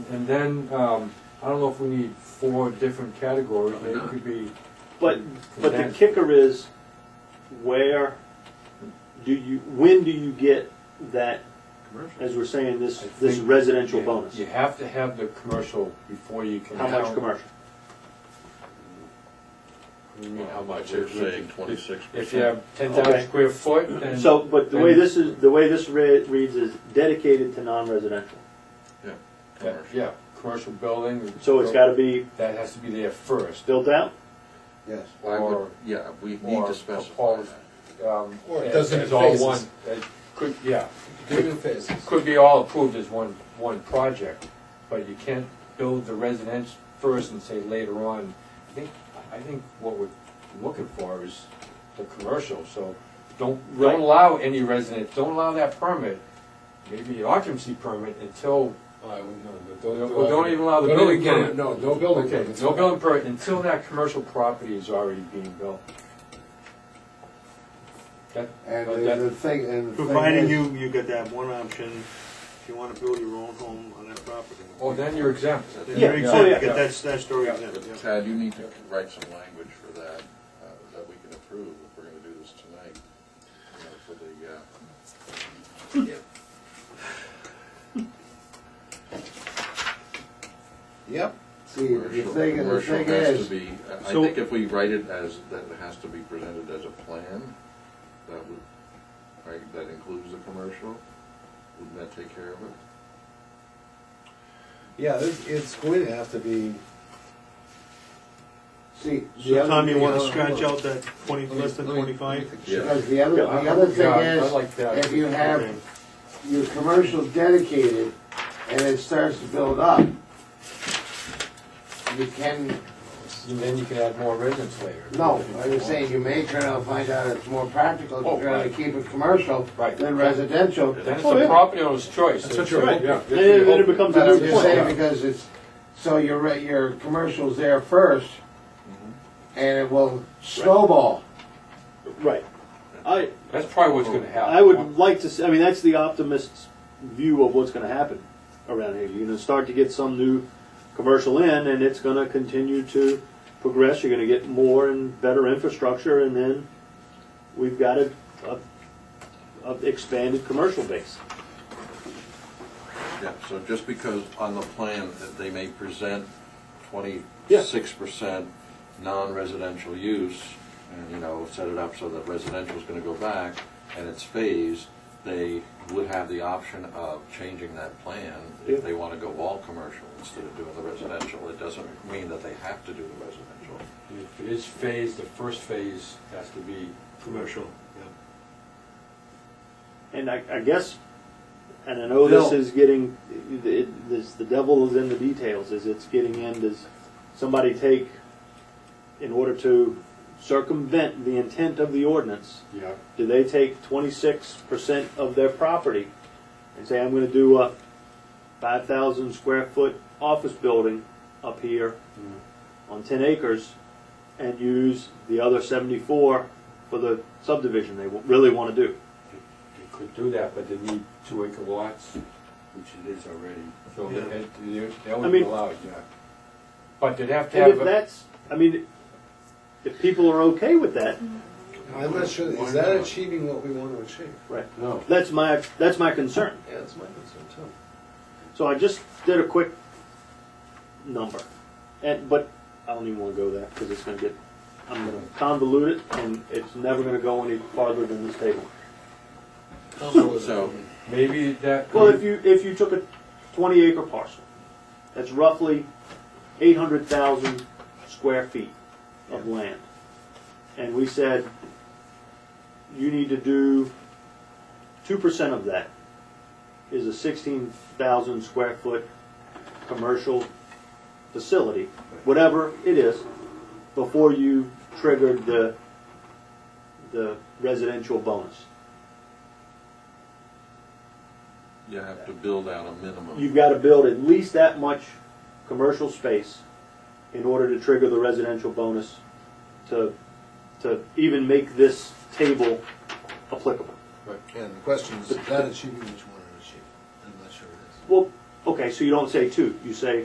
And then, um, I don't know if we need four different categories, Probably maybe it not. could be. But, Mm-hmm. but the condensed. kicker is, where do you, when do you get that, commercial. as we're saying, this, I this think- residential Yeah, bonus? You have to have the commercial before you can. How much count- commercial? What do you mean, how much? They're If you- saying twenty-six percent. If you have ten thousand Okay. square foot, then. So, but the then- way this is, the way this re- reads is dedicated to non-residential. that- Yeah, commercial building. So it's gotta be That has to be there first. built out? Yes. Why or- would, yeah, we need or to a specify quali- that. um, Or it as- doesn't As in all phases. one, it could, yeah, Do it in phases. could be all approved as one, one project, but you can't build the residence first and say later on. I think, I think what we're looking for is the commercial, so don't, Right. don't allow any residence, don't allow that permit, maybe occupancy permit until, I wouldn't know, but Well, don't even allow the Don't building even get it. permit. No, no building okay, permits. no building permit, until that commercial property is already being built. That- And but the that- the thing, and the thing Providing is- you, you got that one option, if you wanna build your own home on that property. Oh, then you're exempt. Then you're Yeah. Oh, Oh, exempt, Yeah. you got that statutory exempt, yeah. Tad, you need to write some language for that, uh, that we can approve if we're gonna do this tonight. you know, For the, uh, Yep. See, the commercial, thing, the commercial thing has to is, be, I- I So- think if we write it as, that it has to be presented as a plan, that would, right, that includes the commercial, wouldn't that take care of it? Yeah, this, it's going to have to be, see, the So other. Tom, you thing- wanna scratch out that twenty, Let me- less than let me- twenty-five? Because the other, the Yeah, other Yeah, thing I is, like that. if you have Okay. your commercial dedicated and it starts to build up, you can, And then you can add more residents later. no, I was saying, you may turn out, and find out it's more practical Oh, to try to right. keep it commercial Right. than residential. Then it's Oh, the yeah. property owner's choice. That's what you're right, yeah. Then it then it becomes a But I'm moot just saying, point. because it's, so your, re- your commercial's there first, Mm-hmm. and it will snowball. Right. I, That's probably what's gonna happen. I would like to, see- I mean, that's the optimist's view of what's gonna happen around here. You're gonna start to get some new commercial in, and it's gonna continue to progress. You're gonna get more and better infrastructure, and then we've got a, a, a expanded commercial base. Yeah, so just because on the plan that they may present twenty-six percent non-residential use, and, you know, set it up so that residential is gonna go back, and it's phased, they would have the option of changing that plan Yeah. if they wanna go all commercial instead of doing the residential. It doesn't mean that they have to do the residential. If it is phased, the first phase has to be Commercial, yeah. And I, I guess, and I know this Bill. is getting, it, this, the devil is in the details, is it's getting in, does somebody take, in order to circumvent the intent of the ordinance, Yeah. do they take twenty-six percent of their property and say, I'm gonna do a five thousand square foot office building up here on ten acres and use the other seventy-four for the subdivision they wa- really wanna do? They could do that, but they need two acre lots, which it is already, so Yeah. that, that I would be mean- allowed, yeah. But they'd have to And if have, a- that's, I mean, if people are okay with that, I'm not sure, Why is that not? achieving what we want to achieve? right? No. That's my that's my concern. Yeah, that's my concern too. So I just did a quick number, and but I don't even want to go there because it's going to get I'm going to convolute it, and it's never going to go any farther than this table. So, maybe that. Well, if you if you took a 20 acre parcel, that's roughly 800,000 square feet of land, and we said you need to do two percent of that is a 16,000 square foot commercial facility, whatever it is, before you triggered the the residential bonus. you have to build out a minimum. you've got to build at least that much commercial space in order to trigger the residential bonus to, to even make this table applicable. And the question is, is that achieving what you want to achieve? I'm not sure it is. Well, Okay, so you don't say two, you say